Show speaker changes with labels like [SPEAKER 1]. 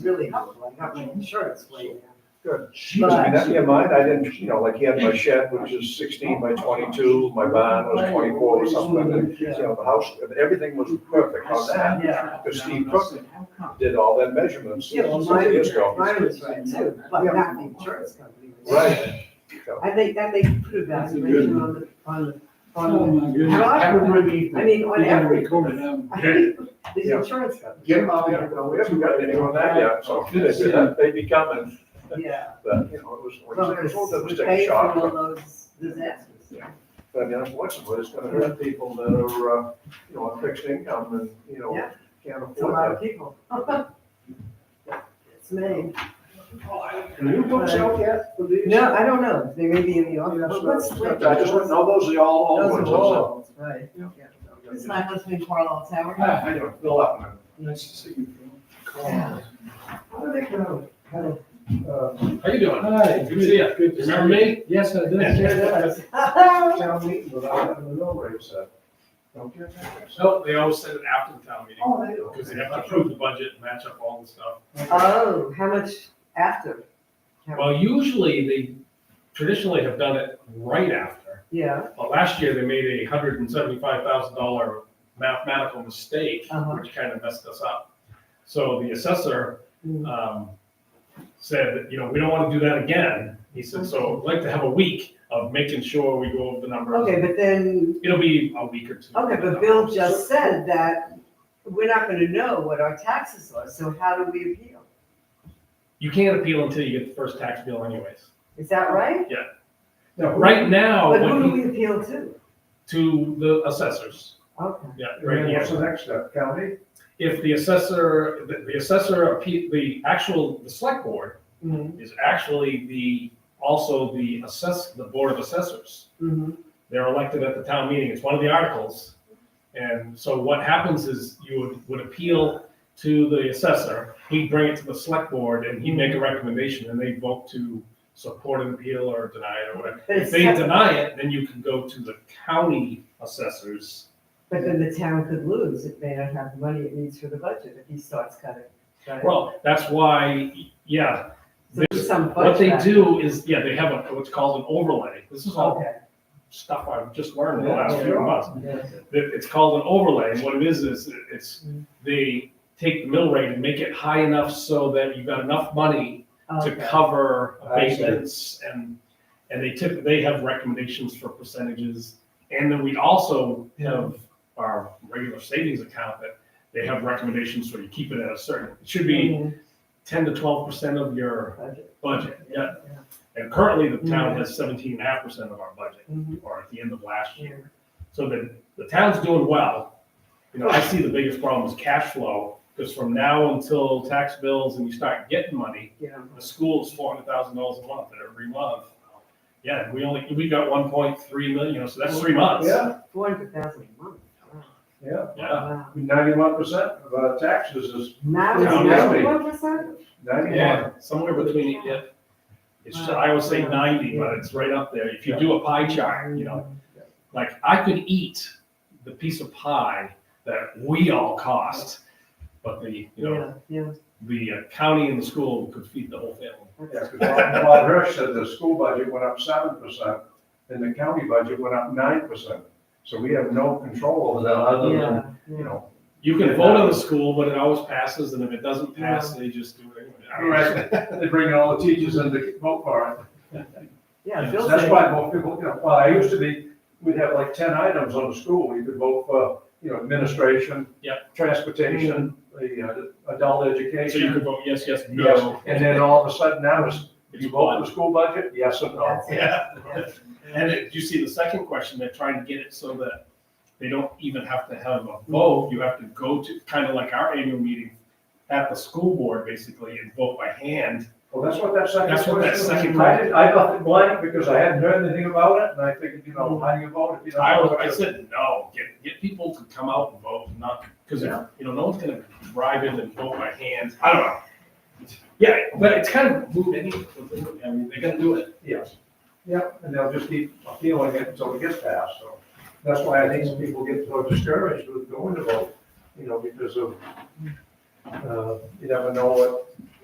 [SPEAKER 1] really helpful, I got my insurance laid out.
[SPEAKER 2] She was, I mean, in mind, I didn't, you know, like he had my shed, which is sixteen by twenty-two, my barn was twenty-four or something, and, you know, the house, and everything was perfect on that.
[SPEAKER 1] Yeah.
[SPEAKER 2] Because Steve
[SPEAKER 1] I
[SPEAKER 2] Cook
[SPEAKER 1] said, How come?
[SPEAKER 2] did all that measurements
[SPEAKER 1] Yeah, well,
[SPEAKER 2] years
[SPEAKER 1] mine was,
[SPEAKER 2] ago.
[SPEAKER 1] mine was right too, but not the insurance company. was.
[SPEAKER 2] Right. So,
[SPEAKER 1] I think that they put a valuation on the, on the,
[SPEAKER 3] Oh,
[SPEAKER 1] on
[SPEAKER 3] my goodness.
[SPEAKER 1] How-
[SPEAKER 3] Have a good evening.
[SPEAKER 1] I mean, on
[SPEAKER 3] You gotta
[SPEAKER 1] every-
[SPEAKER 3] record it, um,
[SPEAKER 1] the, I think the
[SPEAKER 2] Yeah.
[SPEAKER 1] insurance company.
[SPEAKER 2] Get them out there, no, we haven't got anyone on that yet, so they'd be coming,
[SPEAKER 1] Yeah.
[SPEAKER 2] but, you know, it was, it
[SPEAKER 1] Well,
[SPEAKER 2] was all that was
[SPEAKER 1] we
[SPEAKER 2] taking
[SPEAKER 1] pay for
[SPEAKER 2] shock.
[SPEAKER 1] all those disasters.
[SPEAKER 2] But I mean, unfortunately, it's gonna hurt people that are, uh, you know, on fixed income and, you know,
[SPEAKER 1] Yeah.
[SPEAKER 2] can't
[SPEAKER 1] It's a
[SPEAKER 2] afford
[SPEAKER 1] lot
[SPEAKER 2] that.
[SPEAKER 1] of people. It's me.
[SPEAKER 2] Can you books out yet for these?
[SPEAKER 1] No, I don't know, they may be in the
[SPEAKER 2] Yeah,
[SPEAKER 1] office.
[SPEAKER 2] so-
[SPEAKER 1] What's-
[SPEAKER 2] I just want, no, those are all old
[SPEAKER 1] Those
[SPEAKER 2] ones.
[SPEAKER 1] are all, right.
[SPEAKER 2] those
[SPEAKER 4] It's
[SPEAKER 2] are-
[SPEAKER 4] my husband Carlos Howard.
[SPEAKER 2] Ah, I don't, Bill Upman.
[SPEAKER 3] Nice to see you. Carl.
[SPEAKER 1] How do they go? How do-
[SPEAKER 2] Uh,
[SPEAKER 5] How you doing?
[SPEAKER 3] Hi.
[SPEAKER 5] Good to see you.
[SPEAKER 3] Good to see
[SPEAKER 5] Remember me?
[SPEAKER 3] Yes, I
[SPEAKER 1] It sure
[SPEAKER 3] did.
[SPEAKER 1] does.
[SPEAKER 2] Town meeting without having the mill rate set. Don't you?
[SPEAKER 5] No, they always send it after the town meeting,
[SPEAKER 2] Oh, they do.
[SPEAKER 5] because they have to approve the budget, and match up all the stuff.
[SPEAKER 1] Oh, how much after? How-
[SPEAKER 5] Well, usually they traditionally have done it right after,
[SPEAKER 1] Yeah,
[SPEAKER 5] but last year they made a hundred and seventy-five thousand dollar mathematical mistake,
[SPEAKER 1] Uh-huh.
[SPEAKER 5] which kind of messed us up. So the assessor,
[SPEAKER 1] Mm.
[SPEAKER 5] um, said, that, you know, we don't want to do that again. He said, so I'd like to have a week of making sure we go over the numbers.
[SPEAKER 1] okay, but then
[SPEAKER 5] It'll be a week or two.
[SPEAKER 1] Okay, but Bill just said that we're not gonna know what our taxes are, so how do we appeal?
[SPEAKER 5] You can't appeal until you get the first tax bill anyways.
[SPEAKER 1] Is that right?
[SPEAKER 5] Now, right now,
[SPEAKER 1] But who
[SPEAKER 5] Oh. when
[SPEAKER 1] do
[SPEAKER 5] he-
[SPEAKER 1] we appeal to?
[SPEAKER 5] to the assessors,
[SPEAKER 1] Okay,
[SPEAKER 5] yeah, right
[SPEAKER 2] And then
[SPEAKER 5] here.
[SPEAKER 2] what's the next step, county?
[SPEAKER 5] If the assessor, the the assessor, appe- the actual, the select board
[SPEAKER 1] mhm,
[SPEAKER 5] is actually the, also the assess, the board of assessors.
[SPEAKER 1] mhm,
[SPEAKER 5] They're elected at the town meeting, it's one of the articles. And so what happens is you would, would appeal to the assessor, he'd bring it to the select board and he'd make a recommendation and they vote to support an appeal or deny it or whatever.
[SPEAKER 1] But
[SPEAKER 5] If
[SPEAKER 1] it's,
[SPEAKER 5] they
[SPEAKER 1] tech-
[SPEAKER 5] deny it, then you can go to the county assessors.
[SPEAKER 1] but then the town could lose, it may not have the money it needs for the budget if he starts cutting. right?
[SPEAKER 5] Well, that's why, yeah,
[SPEAKER 1] So there's some
[SPEAKER 5] what they
[SPEAKER 1] budget.
[SPEAKER 5] do is, yeah, they have a, what's called an overlay. This is all
[SPEAKER 1] Okay,
[SPEAKER 5] stuff I've just learned in the
[SPEAKER 2] Yeah,
[SPEAKER 5] last few
[SPEAKER 2] sure.
[SPEAKER 5] months. That It's called an overlay, and what it is, is it's, they take the mill rate and make it high enough so that you've got enough money to
[SPEAKER 1] okay,
[SPEAKER 5] cover
[SPEAKER 2] I see.
[SPEAKER 5] abatements and, and they tip, they have recommendations for percentages. And then we also have our regular savings account that they have recommendations for you keep it at a certain, it should be
[SPEAKER 1] mhm,
[SPEAKER 5] ten to twelve percent of your
[SPEAKER 1] budget,
[SPEAKER 5] budget, yeah.
[SPEAKER 1] yeah,
[SPEAKER 5] And currently the town has seventeen and a half percent of our budget,
[SPEAKER 1] mhm,
[SPEAKER 5] or at the end of last year.
[SPEAKER 1] yeah.
[SPEAKER 5] So the, the town's doing well. You know, I see the biggest problem is cash flow, because from now until tax bills and you start getting money,
[SPEAKER 1] Yeah,
[SPEAKER 5] the school is four hundred thousand dollars a month, and every month, yeah, we only, we got one point three million, so that's three months.
[SPEAKER 2] Yeah,
[SPEAKER 1] four hundred thousand a month, wow,
[SPEAKER 2] yeah,
[SPEAKER 5] Yeah,
[SPEAKER 1] wow.
[SPEAKER 2] ninety-one percent of uh, taxes is
[SPEAKER 1] Now it's
[SPEAKER 5] Town
[SPEAKER 2] levy.
[SPEAKER 1] ninety-one percent?
[SPEAKER 2] ninety-one.
[SPEAKER 5] yeah, somewhere between, it, yeah. It's, I always say ninety, but it's right up there, if you do a pie chart, you know, like, I could eat the piece of pie that we all cost, but the, you know,
[SPEAKER 1] Yeah, yeah,
[SPEAKER 5] the uh, county and the school could feed the whole family.
[SPEAKER 2] Yeah, because Bob Bob Hirsch said the school budget went up seven percent, and the county budget went up nine percent. So we have no control over that other than,
[SPEAKER 1] yeah,
[SPEAKER 2] you
[SPEAKER 1] yeah.
[SPEAKER 2] know.
[SPEAKER 5] You can vote on the school, but it always passes, and if it doesn't pass, they just do it anyway. I don't know.
[SPEAKER 2] They bring all the teachers in to vote for it.
[SPEAKER 1] Yeah, Bill
[SPEAKER 2] That's
[SPEAKER 1] said-
[SPEAKER 2] why most people, you know, well, I used to be, we'd have like ten items on the school, you could vote for, you know, administration.
[SPEAKER 5] Yep.
[SPEAKER 2] Transportation, the uh, adult
[SPEAKER 5] So you
[SPEAKER 2] education.
[SPEAKER 5] could vote yes, yes,
[SPEAKER 2] Yes,
[SPEAKER 5] no.
[SPEAKER 2] and then all of a sudden now it's,
[SPEAKER 5] It's
[SPEAKER 2] you vote for the school budget, yes or no?
[SPEAKER 1] That's it.
[SPEAKER 5] Yeah. And it- you see the second question, they're trying to get it so that they don't even have to have a vote. You have to go to, kind of like our annual meeting at the school board, basically, and vote by hand.
[SPEAKER 2] Well, that's what that second.
[SPEAKER 5] That's what that
[SPEAKER 2] question was.
[SPEAKER 5] second-
[SPEAKER 2] I didn't, I left it blank because I hadn't heard anything about it, and I figured, you know, how do you vote if you don't?
[SPEAKER 5] I was, I said, no, get, get people to come out and vote, not, because, you
[SPEAKER 2] Yeah.
[SPEAKER 5] know, no one's gonna drive in and vote by hand. I don't know. Yeah, but it's kind of moot anyway. I mean, they're gonna do it.
[SPEAKER 2] Yes. Yep, and they'll just keep appealing it until it gets passed, so. That's why I think some people get so discouraged with going to vote, you know, because of Uh, You never know what